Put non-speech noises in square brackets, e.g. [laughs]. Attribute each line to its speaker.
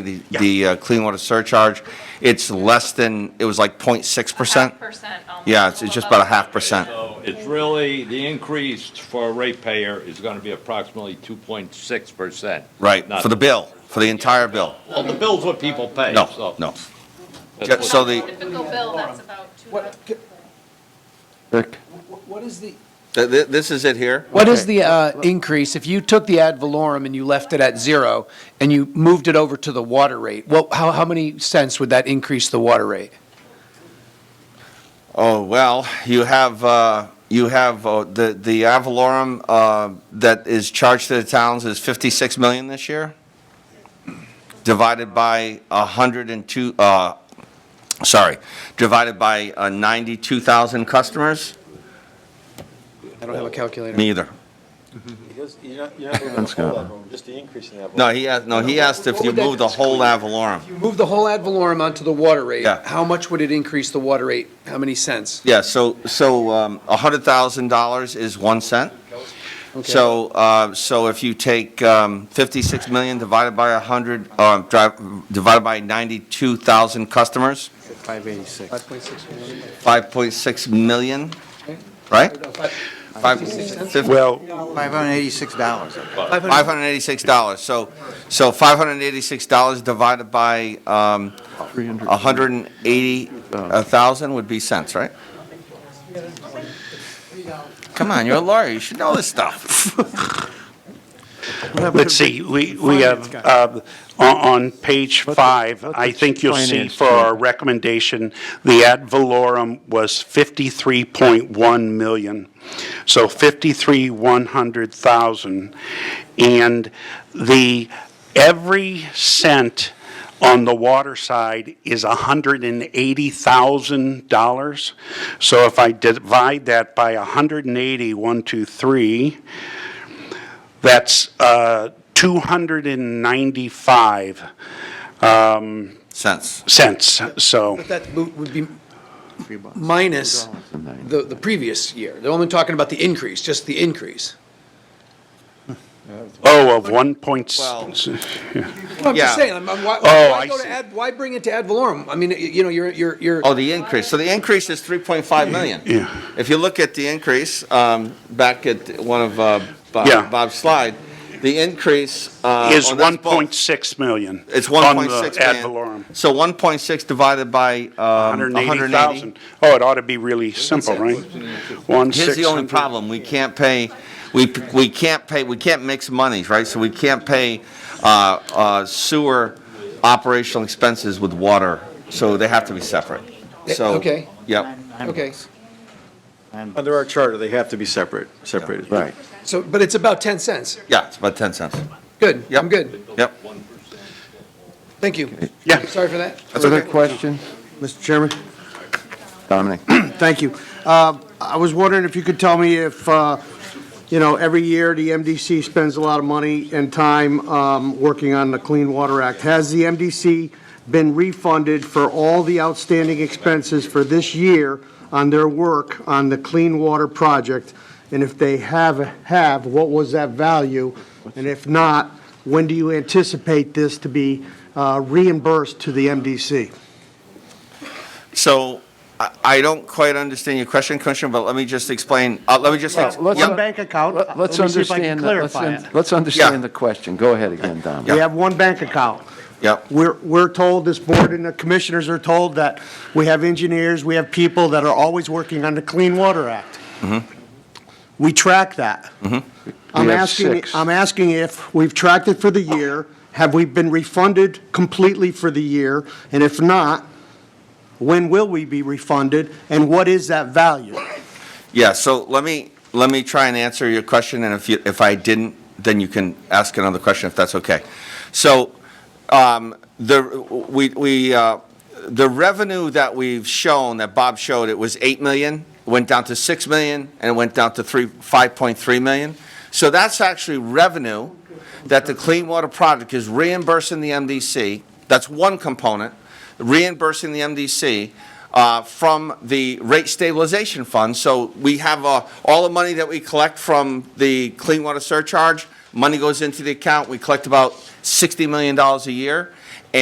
Speaker 1: the, the uh, clean water surcharge, it's less than, it was like 0.6 percent?
Speaker 2: Half percent almost.
Speaker 1: Yeah, it's, it's just about a half percent.
Speaker 3: So it's really, the increase for a ratepayer is going to be approximately 2.6%.
Speaker 1: Right,
Speaker 3: Not-
Speaker 1: for the bill, for the entire bill.
Speaker 3: Well, the bill's what people pay,
Speaker 1: No,
Speaker 3: so.
Speaker 1: no.
Speaker 3: that's
Speaker 1: Yeah,
Speaker 3: what-
Speaker 1: so the-
Speaker 2: Typical bill, that's about two.
Speaker 4: What,
Speaker 2: hundred-
Speaker 4: c- wh- what is the,
Speaker 1: Th- th- This is it here?
Speaker 4: what is the uh, increase, if you took the ad valorem and you left it at zero, and you moved it over to the water rate, what, how, how many cents would that increase the water rate?
Speaker 1: Oh, well, you have, uh, you have, uh, the, the avalorum, uh, that is charged to the towns is 56 million this year, divided by 102, uh, sorry, divided by uh, 92,000 customers?
Speaker 4: I don't have a calculator.
Speaker 1: Me either.
Speaker 5: Because you're not, you're not moving the whole level, just the increase in that.
Speaker 1: No, he asked, no, he asked if you move the whole avalorum.
Speaker 4: You move the whole ad valorem onto the water rate,
Speaker 1: Yeah.
Speaker 4: how much would it increase the water rate? How many cents?
Speaker 1: Yeah, so, so um, $100,000 is 1 cent.
Speaker 4: Okay.
Speaker 1: So, uh, so if you take um, 56 million divided by 100, uh, dri- divided by 92,000 customers,
Speaker 4: 5.6 million.
Speaker 1: 5.6 million, right? Five- fif-
Speaker 5: Well,
Speaker 6: $586.
Speaker 1: $586. So, so $586 divided by um, 180,000 would be cents, right? Come on, you're a lawyer, you should know this stuff. [laughs]
Speaker 7: Let's see, we, we have, uh, on, on page five, I think you'll see for our recommendation, the ad valorem was fifty-three point one million. So fifty-three, one hundred thousand. And the, every cent on the water side is $180,000. So if I divide that by 180, one, two, three, that's uh, 295
Speaker 1: Cents.
Speaker 7: cents, so,
Speaker 4: That mo- would be minus the, the previous year. They're only talking about the increase, just the increase.
Speaker 7: oh, of 1 point,
Speaker 1: Well-
Speaker 7: s-
Speaker 4: I'm just
Speaker 1: Yeah.
Speaker 4: saying, I'm, I'm, why,
Speaker 7: Oh,
Speaker 4: why
Speaker 7: I
Speaker 4: go to
Speaker 7: see.
Speaker 4: ad, why bring it to ad valorem? I mean, y- you know, you're, you're, you're.
Speaker 1: Oh, the increase, so the increase is 3.5 million.
Speaker 7: yeah.
Speaker 1: If you look at the increase, um, back at one of uh, Bob-
Speaker 7: Yeah.
Speaker 1: Bob's slide, the increase. uh,
Speaker 7: is
Speaker 1: on this bulk-
Speaker 7: 1.6 million.
Speaker 1: It's 1.6
Speaker 7: On the
Speaker 1: million.
Speaker 7: ad valorem,
Speaker 1: So 1.6 divided by um, 180.
Speaker 7: 180,000. Oh, it ought to be really simple, right? One
Speaker 1: Here's the only
Speaker 7: 600
Speaker 1: problem, we can't pay, we, we can't pay, we can't mix monies, right? So we can't pay uh, uh, sewer operational expenses with water, so they have to be separate. So.
Speaker 4: Okay.
Speaker 1: Yep.
Speaker 4: Okay,
Speaker 5: under our charter, they have to be separate, separated.
Speaker 6: Right.
Speaker 4: so, but it's about 10 cents.
Speaker 1: Yeah, it's about 10 cents.
Speaker 4: Good,
Speaker 1: Yep.
Speaker 4: I'm good.
Speaker 1: Yep.
Speaker 4: Thank you.
Speaker 7: Yeah.
Speaker 4: Sorry for that.
Speaker 6: Other questions? Mr. Chairman? Dominic?
Speaker 8: Thank you. Uh, I was wondering if you could tell me if, uh, you know, every year the MDC spends a lot of money and time um, working on the Clean Water Act. Has the MDC been refunded for all the outstanding expenses for this year on their work on the Clean Water Project? And if they have, have, what was that value? And if not, when do you anticipate this to be uh, reimbursed to the MDC?
Speaker 1: So I- I don't quite understand your question, Commissioner, but let me just explain, uh, let me just. ex-
Speaker 6: Let's-
Speaker 1: Yep.
Speaker 8: One bank account.
Speaker 6: Let- Uh, Let's
Speaker 8: Let me see if I can
Speaker 6: understand, the- let's,
Speaker 8: clarify
Speaker 6: un-
Speaker 8: it.
Speaker 6: let's understand the question. Go ahead again, Dominic.
Speaker 8: We have one bank account.
Speaker 1: Yep.
Speaker 8: We're, we're told, this board and the commissioners are told that we have engineers, we have people that are always working on the Clean Water Act. We track that. I'm
Speaker 6: Mm-hmm. We have
Speaker 8: asking,
Speaker 6: six.
Speaker 8: I'm asking if we've tracked it for the year, have we been refunded completely for the year? And if not, when will we be refunded, and what is that value?
Speaker 1: Yeah, so let me, let me try and answer your question, and if you, if I didn't, then you can ask another question if that's okay. So, um, the, we, we, uh, the revenue that we've shown, that Bob showed, it was 8 million, went down to 6 million, and it went down to 3, 5.3 million. So that's actually revenue that the Clean Water Project is reimbursing the MDC. That's one component, reimbursing the MDC uh, from the rate stabilization fund. So we have uh, all the money that we collect from the clean water surcharge, money goes into the account, we collect about $60 million a year.